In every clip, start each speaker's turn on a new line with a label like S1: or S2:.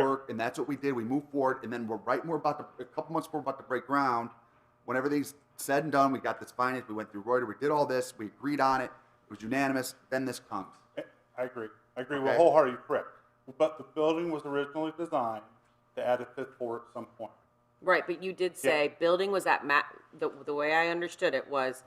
S1: and that's what we did. We moved forward, and then we're right. We're about to a couple months. We're about to break ground. When everything's said and done, we got this finance. We went through Reuter. We did all this. We agreed on it. It was unanimous. Then this comes.
S2: I agree. I agree
S1: Okay.
S2: with wholeheartedly correct. But the building was originally designed to add a fifth floor at some point.
S3: Right, but you did say building was at ma, the, the way I understood it was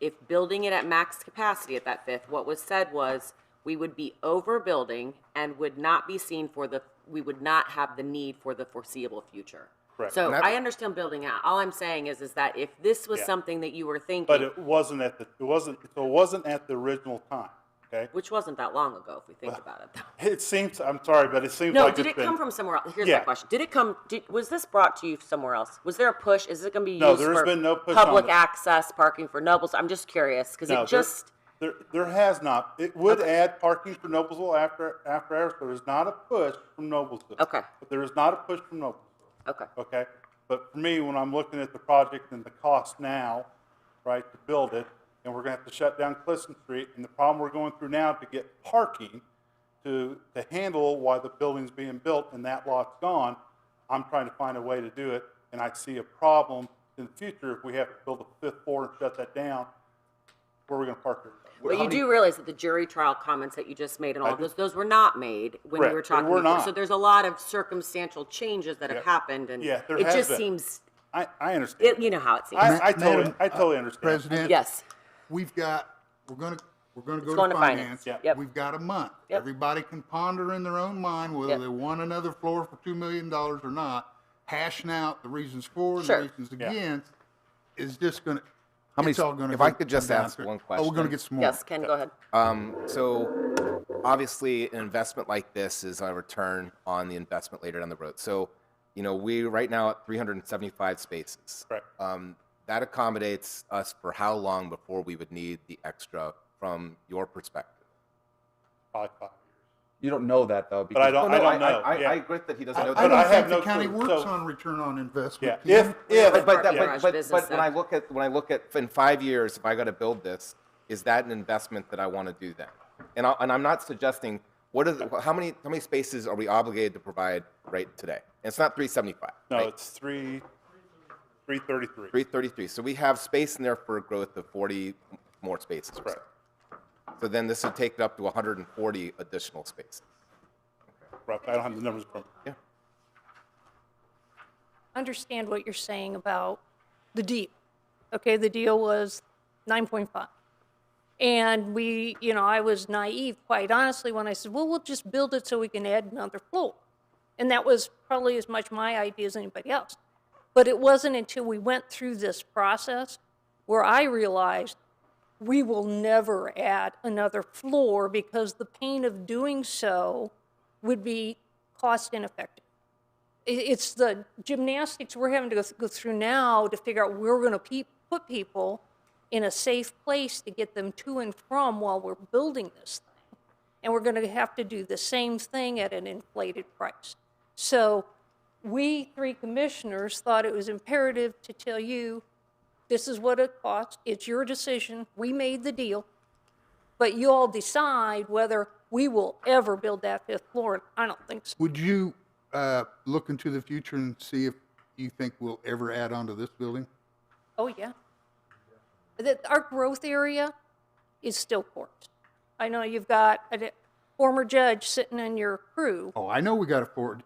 S3: if building it at max capacity at that fifth, what was said was we would be overbuilding and would not be seen for the, we would not have the need for the foreseeable future.
S2: Correct.
S3: So
S4: And that-
S3: I understand building out. All I'm saying is, is that if this was
S2: Yeah.
S3: something that you were
S2: But
S3: thinking,
S2: it wasn't at the, it wasn't, so it wasn't at the original time, okay?
S3: which wasn't that long ago, if we think about it though.
S2: It seems, I'm sorry, but it seems
S3: No,
S2: like
S3: did
S2: it's
S3: it come
S2: been.
S3: from somewhere else? Here's
S2: Yeah.
S3: my question. Did it come, did, was this brought to you somewhere else? Was there a push? Is it gonna be
S2: No,
S3: used
S2: there has
S3: for
S2: been no push on
S3: public
S2: it.
S3: access parking for nobles? I'm just curious, because
S2: No,
S3: it
S2: there-
S3: just,
S2: There, there has not. It would add parking for Noblesville after, after hours, but there's not a push from Noblesville.
S3: Okay.
S2: But there is not a push from Noblesville.
S3: okay,
S2: okay? But for me, when I'm looking at the project and the cost now, right, to build it, and we're gonna have to shut down Clifton Street, and the problem we're going through now to get parking to, to handle why the building's being built and that lot's gone, I'm trying to find a way to do it, and I see a problem in the future if we have to build a fifth floor and shut that down, where are we gonna park it?
S3: but
S1: How
S3: you
S1: many-
S3: do realize that the jury trial comments that you just made and all of
S2: do.
S3: those, those were not made when you
S2: Correct.
S3: were
S2: They
S3: talking.
S2: were
S3: before.
S2: not.
S3: So there's a lot of circumstantial changes that have
S2: Yeah.
S3: happened, and
S2: Yeah, there
S3: it
S2: has
S3: just
S2: been.
S3: seems,
S2: I, I understand.
S3: it, you know how it seems.
S2: I, I totally,
S4: Madam,
S2: I totally
S4: uh,
S2: understand.
S4: President?
S3: Yes,
S4: We've got, we're gonna, we're gonna go
S3: going
S4: to
S3: to finance.
S4: finance.
S2: Yep.
S3: Yep.
S4: We've got a month.
S3: Yep.
S4: Everybody can ponder in their own mind whether
S3: Yep.
S4: they want another floor for two million dollars or not. Hashing out the reasons for and the
S3: Sure.
S4: reasons
S2: Yeah.
S4: against is just gonna,
S5: How many-
S4: it's all gonna.
S5: if I
S4: go-
S5: could just
S4: come down
S5: ask
S4: to it.
S5: one
S4: Oh, we're gonna
S5: question.
S4: get some more.
S3: yes, Ken, go ahead.
S5: Um, so obviously an investment like this is a return on the investment later down the road. So, you know, we right now at 375 spaces.
S2: Correct.
S5: Um, that accommodates us for how long before we would need the extra from your perspective?
S2: Probably five years.
S1: You don't know that though,
S2: I don't-
S5: No, no,
S2: I don't know,
S5: I, I,
S2: yeah.
S5: I agree that he doesn't
S4: I
S5: know
S2: But
S4: I
S5: that.
S2: I
S4: don't
S2: have
S4: think the
S2: no
S4: county
S2: clue,
S4: works
S2: so-
S4: on return on
S2: Yeah,
S4: investment.
S2: if,
S4: Ken.
S2: if.
S5: but, but, that,
S2: yeah.
S5: but, but,
S3: business
S5: but when I
S3: act.
S5: look at when I look at in five years, if I got to build this, is that an investment that I want to do then? And I, and I'm not suggesting what is how many how many spaces are we obligated to provide right today? And it's not 375.
S2: No,
S5: right?
S2: it's three, three thirty-three.
S5: 333. So we have space in there for a growth of 40 more spaces. or so.
S2: Correct.
S5: So then this would take it up to 140 additional spaces.
S2: Rough. I don't have the numbers from.
S5: Yeah.
S6: understand what you're saying about the deal. Okay, the deal was 9.5. And we, you know, I was naive, quite honestly, when I said, well, we'll just build it so we can add another floor. And that was probably as much my idea as anybody else. But it wasn't until we went through this process where I realized we will never add another floor because the pain of doing so would be cost ineffective it- it's the gymnastics we're having to go, th- go through now to figure out where we're going to pe- put people in a safe place to get them to and from while we're building this thing. And we're going to have to do the same thing at an inflated price. So we three commissioners thought it was imperative to tell you this is what it costs. It's your decision. We made the deal. But you all decide whether we will ever build that fifth floor. And I don't think so.
S4: Would you, uh, look into the future and see if you think we'll ever add on to this building?
S6: Oh, yeah. That, our growth area is still court. I know you've got a di- former judge sitting in your crew.
S4: Oh, I know we got to afford.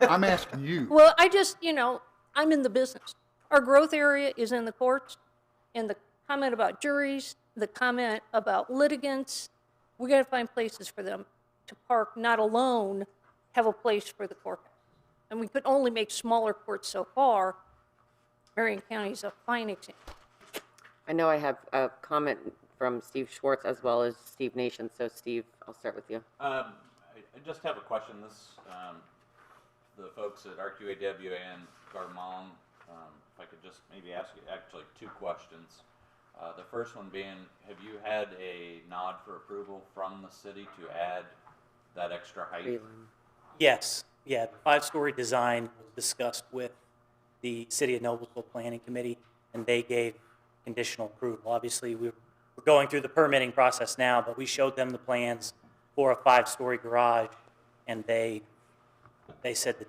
S4: I'm asking you.
S6: Well, I just, you know, I'm in the business. Our growth area is in the courts, and the comment about juries, the comment about litigants, we gotta find places for them to park, not alone have a place for the courthouse. And we could only make smaller courts so far. Marion County is a fine example.
S3: I know I have a comment from Steve Schwartz as well as Steve Nation, so Steve, I'll start with you.
S7: Um, I, I just have a question. This, um, the folks at RQAW and Garmon, um, if I could just maybe ask you actually two questions. Uh, the first one being, have you had a nod for approval from the city to add that extra height?
S8: Yes, yeah, the five-story design was discussed with the City of Noblesville Planning Committee, and they gave conditional approval. Obviously, we we're going through the permitting process now, but we showed them the plans for a five-story garage, and they, they said that